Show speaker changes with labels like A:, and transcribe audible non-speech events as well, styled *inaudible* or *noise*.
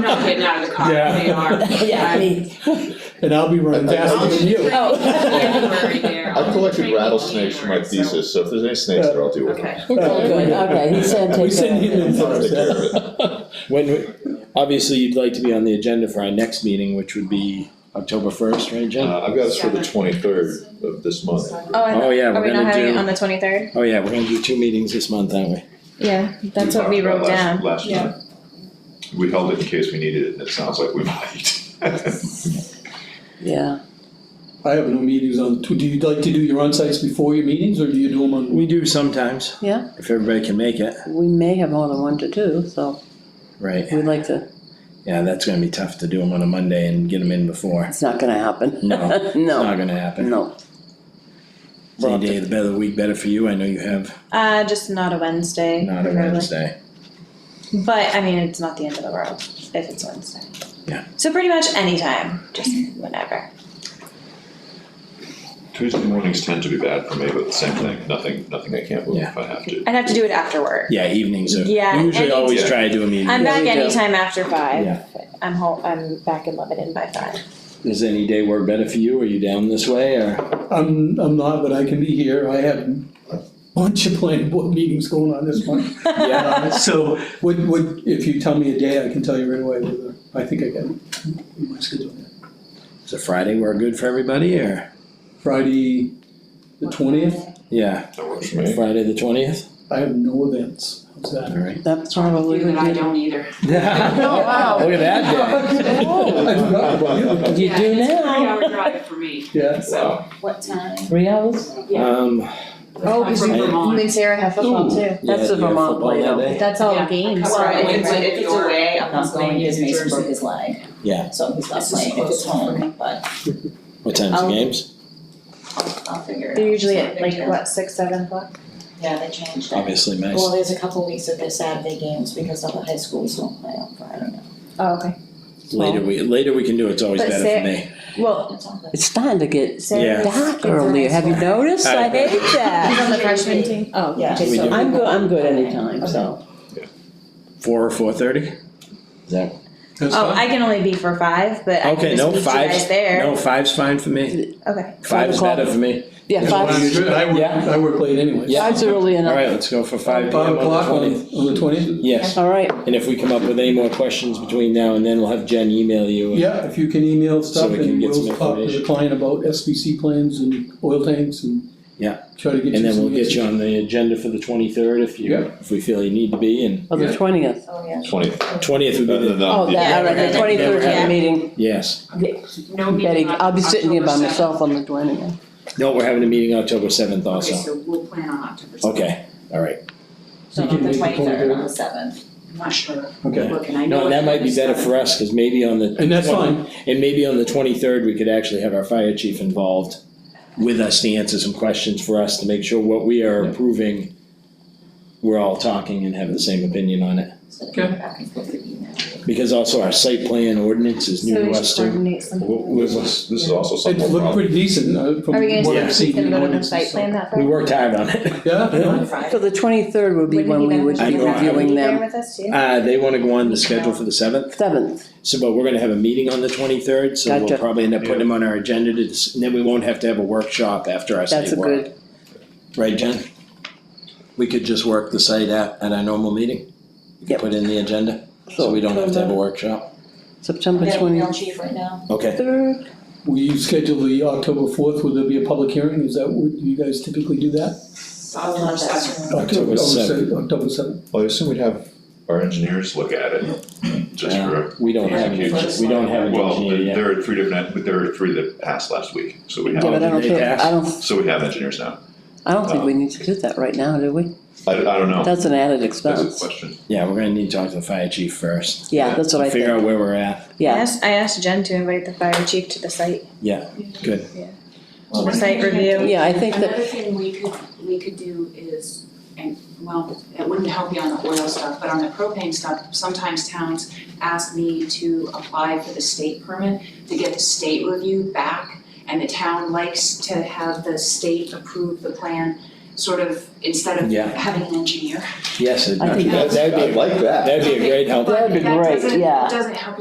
A: not getting out of the car,
B: Yeah.
A: they
C: *laughs*
A: are.
D: *laughs* Yeah,
A: I'm-
D: me.
B: And I'll be running faster than you.
D: Oh.
E: *laughs*
A: January there, I'll
F: I
A: be
F: collected
A: training all
F: rattlesnakes for my
A: January, so-
F: thesis, so if there's any snakes there, I'll deal with them.
A: Okay,
D: It's all good, okay, he said
B: We
D: take care
B: send
D: of
B: him in
D: it.
F: I'll take care
B: first.
F: of it.
C: *laughs* When, we- obviously, you'd like to be on the agenda for our next meeting, which would be October first, right, Jen?
F: Uh, I've got this for the twenty-third of this month.
E: Oh, I
C: Oh,
E: thought,
C: yeah,
E: are
C: we're
E: we not
C: gonna
E: having it
C: do,
E: on the twenty-third?
C: oh, yeah, we're gonna do two meetings this month, aren't we?
E: Yeah, that's what we wrote
F: talked about last-
E: down.
F: Last
E: Yeah.
F: time. We held it in case we needed it, and it sounds like we *laughs* might.
D: Yeah,
B: I have no meetings on, do you like to do your onsites before your meetings, or do you do them on?
C: We do sometimes.
D: Yeah.
C: If everybody can make it,
D: we may have more than one to do, so
C: right,
D: we'd like to,
C: yeah, that's gonna be tough to do them on a Monday and get them in before,
D: it's not gonna happen. *laughs*
C: No, it's it's not
D: No,
C: gonna happen.
D: no.
C: Any day of the better, the week better for you, I know you have
E: Uh, just not a Wednesday.
C: not a
E: really.
C: Wednesday.
E: But I mean, it's not the end of the world if it's Wednesday.
C: Yeah.
E: So pretty much anytime, just whenever.
F: *laughs* Tuesday mornings tend to be bad for me, but the same thing, nothing, nothing I can't move
C: Yeah.
F: if I have to.
E: I'd have to do it after work.
C: Yeah, evenings are,
E: Yeah,
C: we usually
E: and-
C: always try to do a meeting.
E: I'm
D: Yeah,
E: back
D: we do.
E: anytime after five.
C: Yeah.
E: I'm home, I'm back in Lebanon by five.
C: Does any day work better for you, are you down this
D: *laughs*
C: way, or,
B: I'm, I'm not, but I can be here, I have a bunch of planning board meetings going on this month.
E: *laughs*
C: yeah,
B: Uh, So, what, what, if you tell me a day, I can tell you right away whether, I think I can, my schedule.
C: is a Friday work good for everybody, or,
B: Friday, the twentieth,
C: yeah,
F: That works for me.
C: Friday the twentieth,
B: I have no events, how's that? *laughs*
D: *laughs*
C: alright.
D: That probably
A: You and
D: would
A: I
D: be,
A: don't either.
C: Yeah.
D: wow.
C: Look at
B: *laughs*
C: that day.
B: I forgot about you.
D: You
A: Yeah,
D: do
A: It's a
D: now.
A: three-hour drive for me,
B: Yeah,
A: so.
G: What time?
D: three hours?
A: Yeah.
C: Um,
D: Oh,
A: I'm
D: 'cause
A: from
C: you-
A: Vermont.
E: and Sarah have
D: football,
E: too.
C: yeah,
D: That's
C: do
D: the
C: you have
D: Vermont
C: football
D: way,
C: that
D: though.
C: day?
G: That's all
A: Yeah.
G: games,
A: Well,
G: right?
A: if it's- if it's away, I'm
G: I'm not going
A: playing
G: because
A: New
G: Mason
A: Jersey.
G: broke his leg.
C: Yeah.
G: So he's not
A: This is
G: playing if it's
A: close enough for
G: home, but
C: What time's the
D: Um,
G: I'll-
C: games?
G: I'll, I'll figure it out.
E: They're usually
G: It's not a
E: at
G: big
E: like,
G: deal.
E: what, six, seven o'clock?
G: Yeah, they changed it.
C: Obviously, nice.
G: Well, there's a couple weeks that they're Saturday games because all the high schools don't play on Friday now.
E: Oh, okay.
C: Later we, later we can do, it, it's always
E: But
C: better
E: Sarah-
C: for me.
E: Well,
G: That's all good.
D: It's starting to get
C: Yeah.
E: Sarah.
D: dark earlier, have you noticed? I hate
E: He's
D: that.
E: on the freshman team. *laughs* Oh,
G: Yeah.
C: We do
D: I'm good, I'm good anytime, so.
C: four or four thirty? Is that,
B: that's
E: Oh,
B: fine.
E: I can only be for five, but I can just
C: okay, no,
E: meet you
C: five's,
E: guys there.
C: no, five's fine for me.
E: Okay.
C: Five's
D: o'clock.
C: better for me.
D: Yeah,
B: As long
D: five,
B: as you're- I work,
C: Yeah.
B: I work late anyway.
C: Yeah.
D: five's early
C: All
D: enough,
C: right, let's go for five
B: Five
C: P M on
B: o'clock
C: the
B: on,
C: twentieth.
B: on the twentieth?
C: Yes,
D: all right,
C: and if we come up with any more questions between now and then, we'll have Jen email you. and-
B: Yeah, if you can email stuff
C: we can
B: and
C: get some
B: we'll talk to the
C: information.
B: client about SBC plans and oil tanks and.
C: Yeah.
B: Try to get you
C: And then
B: some
C: we'll get
B: answers.
C: you on the agenda for the twenty-third if you,
B: Yeah.
C: if we feel you need to be, and
D: on the
B: Yeah.
D: twentieth.
G: Oh, yeah.
F: Twenty.
C: twentieth would be
F: No, no,
C: the,
F: no.
D: Oh, that, all right, the twenty-third
C: Yeah.
D: meeting,
C: yes.
A: No
D: Betty,
A: meeting on
D: I'll be sitting here by
A: October
D: myself on the twentieth.
C: No, we're having a meeting October seventh
A: 7th. Okay,
C: also.
A: so we'll plan on October seventh.
C: Okay, all right.
G: So
B: You can
G: on the
B: make the
G: twenty-third, on
B: 23rd.
G: the seventh.
A: I'm not sure,
B: Okay,
A: looking, I know.
C: No, and that might be better for us, cause maybe on the.
B: and that's fine,
C: And maybe on the twenty-third, we could actually have our fire chief involved with us to answer some questions for us to make sure what we are approving, we're all talking and have the same opinion on it.
G: So they come back and forth with email.
C: Because also our site plan ordinance is new to us too. We-
F: This
C: we-
F: is, this is also
B: it
F: something.
B: looked pretty decent, uh, from
E: Are we gonna
B: what
E: do,
B: I've
E: he's
B: seen.
E: gonna
B: in
E: go to the
B: ordinances,
E: site
B: so-
E: plan that
C: We
E: Friday?
C: worked hard on it.
B: Yeah, no,
G: On Friday.
D: So the twenty-third would be when we would
C: I
D: be
C: know, I-
D: reviewing them,
E: with us too?
C: Uh, they wanna go on the schedule for the seventh,
D: seventh,
C: so, but we're gonna have a meeting on the twenty-third, so we'll
D: Gotcha.
C: probably end up putting them on our agenda to, dis- and then we won't have to have a workshop after our
D: that's
C: site
D: a
C: work.
D: good,
C: Right, Jen? We could just work the site at, at our normal meeting? We could
D: Yep.
C: Put in the agenda, so we don't have to have a workshop?
D: September
G: They have
D: twenty-third.
G: email chief right now.
C: Okay.
B: we schedule the October fourth, will there be a public hearing, is that what, you guys typically do that?
A: October seventh.
C: October
B: oh, se-
C: 7th.
B: October seventh,
F: Well, I assume we'd have our engineers look at it, just
C: Yeah.
F: for,
C: Uh, We don't have,
F: Yeah,
C: an- we don't have an
F: well,
C: engineer
F: there
C: yet.
F: there are three different, but there are three that passed last week, so we
D: Yeah,
F: have,
D: but I don't
C: They
D: think, I
C: asked.
D: don't,
F: so we have engineers now.
D: I don't think we need to do that right now, do we?
F: I, I don't know,
D: That's an added
F: that's a
D: expense,
F: question.
C: Yeah, we're gonna need to talk to the fire chief first,
D: yeah, that's what I
C: figure
D: think,
C: out where we're at.
E: I
D: yeah,
E: asked, I asked Jen to invite the fire chief to the site,
G: Well,
E: for site review.
D: yeah, I think that,
A: Another thing we could, we could do is, and, well, it wouldn't help you on the oil stuff, but on the propane stuff, sometimes towns ask me to apply for the state permit to get the state review back, and the town likes to have the state approve the plan. sort of, instead of
C: Yeah.
A: having an engineer.
C: Yes,
D: I
C: it'd
D: think
C: be,
D: that's-
C: that'd be,
F: like that.
C: that'd be a great help.
D: That'd be
A: But
D: great, yeah.
A: That doesn't, doesn't help